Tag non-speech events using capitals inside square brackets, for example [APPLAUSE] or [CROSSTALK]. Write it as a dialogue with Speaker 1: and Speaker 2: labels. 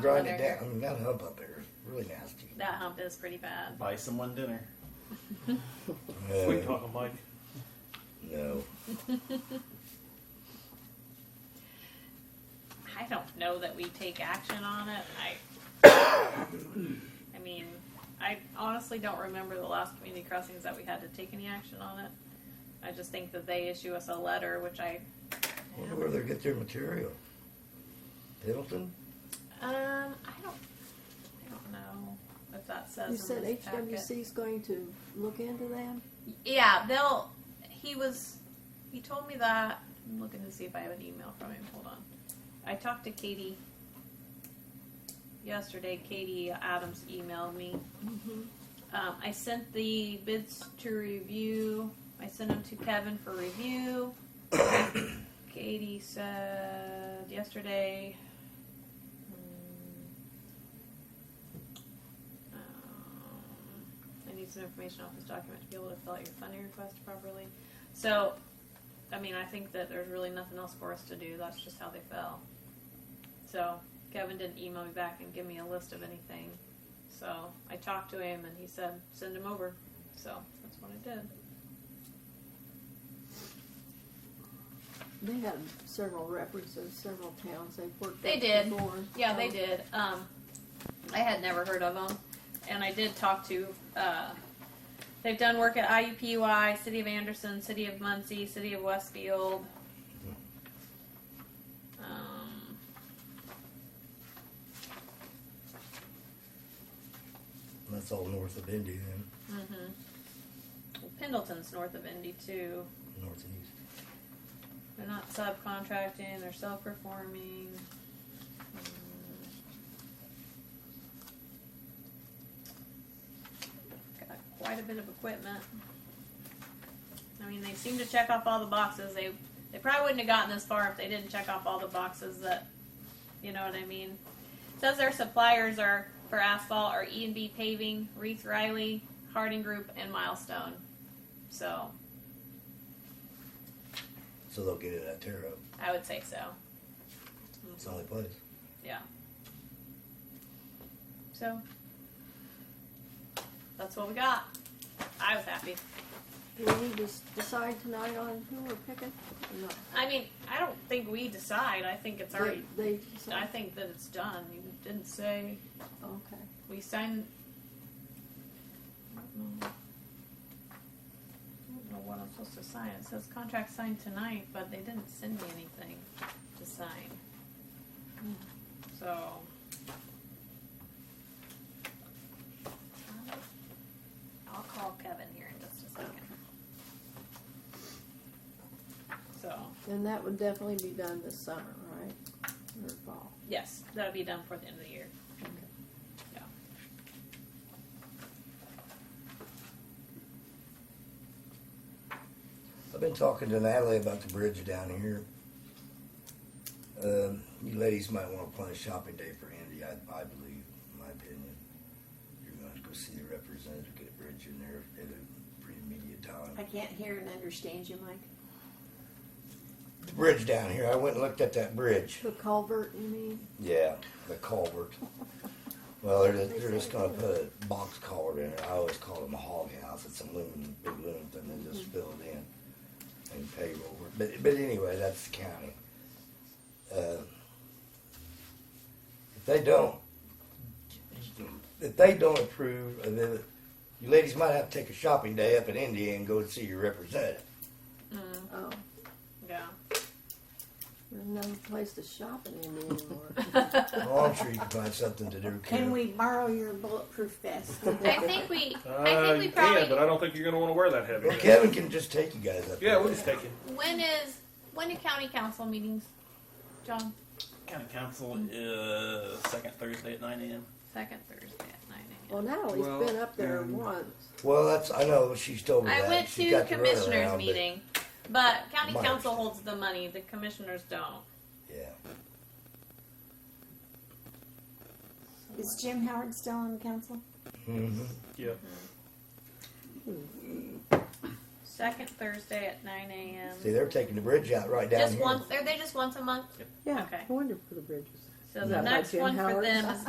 Speaker 1: grind it
Speaker 2: Butter.
Speaker 1: down. I mean, that hump up there is really nasty.
Speaker 2: That hump is pretty bad.
Speaker 3: Buy someone dinner.
Speaker 4: Sweet
Speaker 1: No,
Speaker 4: talking, Mike.
Speaker 1: Uh, no.
Speaker 2: I don't know that we take action on it. I, I mean, I honestly don't remember the last community crossings that we had to take any action on it. I just think that they issue us a letter, which I,
Speaker 1: Wonder where they get their material. Pendleton?
Speaker 2: um, I don't, I don't know if that says.
Speaker 5: You
Speaker 2: in
Speaker 5: said
Speaker 2: this packet.
Speaker 5: HWC is going to look into them?
Speaker 2: Yeah, they'll. He was. He told me that. I'm looking to see if I have an email from him. Hold on. I talked to Katie yesterday. Katie Adams emailed me. Um, I sent the bids to review. I sent them to Kevin for review. [COUGHS] Katie said yesterday. mm, um, I need some information off this document to be able to fill out your funding request properly. So, I mean, I think that there's really nothing else for us to do. That's just how they fell. So, Kevin didn't email me back and give me a list of anything. So, I talked to him and he said, send him over. So, that's what I did.
Speaker 5: They had several references, several towns they've worked
Speaker 2: They
Speaker 5: with
Speaker 2: did.
Speaker 5: before.
Speaker 2: Yeah, they
Speaker 5: so-
Speaker 2: did. Um, I had never heard of them, and I did talk to. Uh, they've done work at IUPUI, City of Anderson, City of Muncie, City of Westfield. Um,
Speaker 1: That's all north of Indy then,
Speaker 2: mhm. mm-hmm. Pendleton's north of Indy too.
Speaker 1: north and east.
Speaker 2: They're not subcontracting, they're Hmm. self performing. Got quite a bit of equipment. I mean, they seem to check off all the boxes. They they probably wouldn't have gotten this far if they didn't check off all the boxes that, you know what I mean. It says their suppliers are for asphalt are E and B Paving, Reith Riley, Harding Group, and Milestone. So
Speaker 1: So they'll get it at Tarot.
Speaker 2: I would say so.
Speaker 1: It's the only place.
Speaker 2: Yeah. So that's what we got. I was happy.
Speaker 5: Do we need to s- decide tonight on who we're picking? or not?
Speaker 2: I mean, I don't think we decide. I think it's already.
Speaker 5: They, they
Speaker 2: I
Speaker 5: decide?
Speaker 2: think that it's done. You didn't say
Speaker 5: Okay.
Speaker 2: we signed. I don't know. I don't know what I'm supposed to sign. It says contract signed tonight, but they didn't send me anything to sign. So. I'll call Kevin here in just a second. So,
Speaker 5: And that would definitely be done this summer, right? Or fall?
Speaker 2: yes, that'll be done for the end of the year.
Speaker 5: Okay.
Speaker 2: Yeah.
Speaker 1: I've been talking to Natalie about the bridge down here. Um, you ladies might want to plan a shopping day for Andy, I, I believe, in my opinion. You're gonna have to go see the representative, get a bridge in there at a pretty immediate
Speaker 6: I
Speaker 1: time.
Speaker 6: can't hear and understand you, Mike.
Speaker 1: The bridge down here, I went and looked at that bridge.
Speaker 5: The culvert, you mean?
Speaker 1: Yeah, the culvert. Well, they're just, they're just gonna put a box culvert in there. I always call them a hog house. It's a loom, big loom thing they just fill it in and pave over. it. But, but anyway, that's the county. Uh, If they don't, if they don't approve, of it, you ladies might have to take a shopping day up in India and go and see your representative.
Speaker 2: Mm,
Speaker 5: Oh,
Speaker 2: yeah.
Speaker 5: there's no place to shop in Indy anymore. [LAUGHS]
Speaker 1: Well, I'm sure you can find something to do.
Speaker 6: Can
Speaker 1: Kim.
Speaker 6: we borrow your bulletproof vest?
Speaker 2: I think we, I
Speaker 4: Uh,
Speaker 2: think we
Speaker 4: you
Speaker 2: probably.
Speaker 4: can, but I don't think you're going to want to wear that heavy.
Speaker 1: Well, Kevin can just take you guys up.
Speaker 4: Yeah,
Speaker 1: there.
Speaker 4: we'll just take it.
Speaker 2: When is when do county council meetings, John?
Speaker 3: County council uh, second Thursday at 9 a.m.
Speaker 2: Second Thursday at nine
Speaker 5: Well, Natalie's
Speaker 4: Well,
Speaker 5: been up there
Speaker 4: um,
Speaker 5: once.
Speaker 1: Well, that's I know she's told me
Speaker 2: I
Speaker 1: that.
Speaker 2: went
Speaker 1: She's
Speaker 2: to
Speaker 1: got the runaround,
Speaker 2: commissioners
Speaker 1: but-
Speaker 2: meeting, but county
Speaker 1: Mine.
Speaker 2: council holds the money. The commissioners don't.
Speaker 1: Yeah,
Speaker 6: Is Jim Howard still on council?
Speaker 1: Mm-hmm.
Speaker 4: Yeah.
Speaker 2: Second Thursday at nine a.m.
Speaker 1: see, they're taking the bridge out right down
Speaker 2: Just
Speaker 1: here.
Speaker 2: once. Are they just once a month?
Speaker 5: Yeah,
Speaker 2: Okay.
Speaker 5: I wonder for the bridges.
Speaker 2: So
Speaker 5: Is
Speaker 2: the
Speaker 5: that by
Speaker 2: next
Speaker 5: Jim
Speaker 2: one for
Speaker 5: Howard?
Speaker 2: them is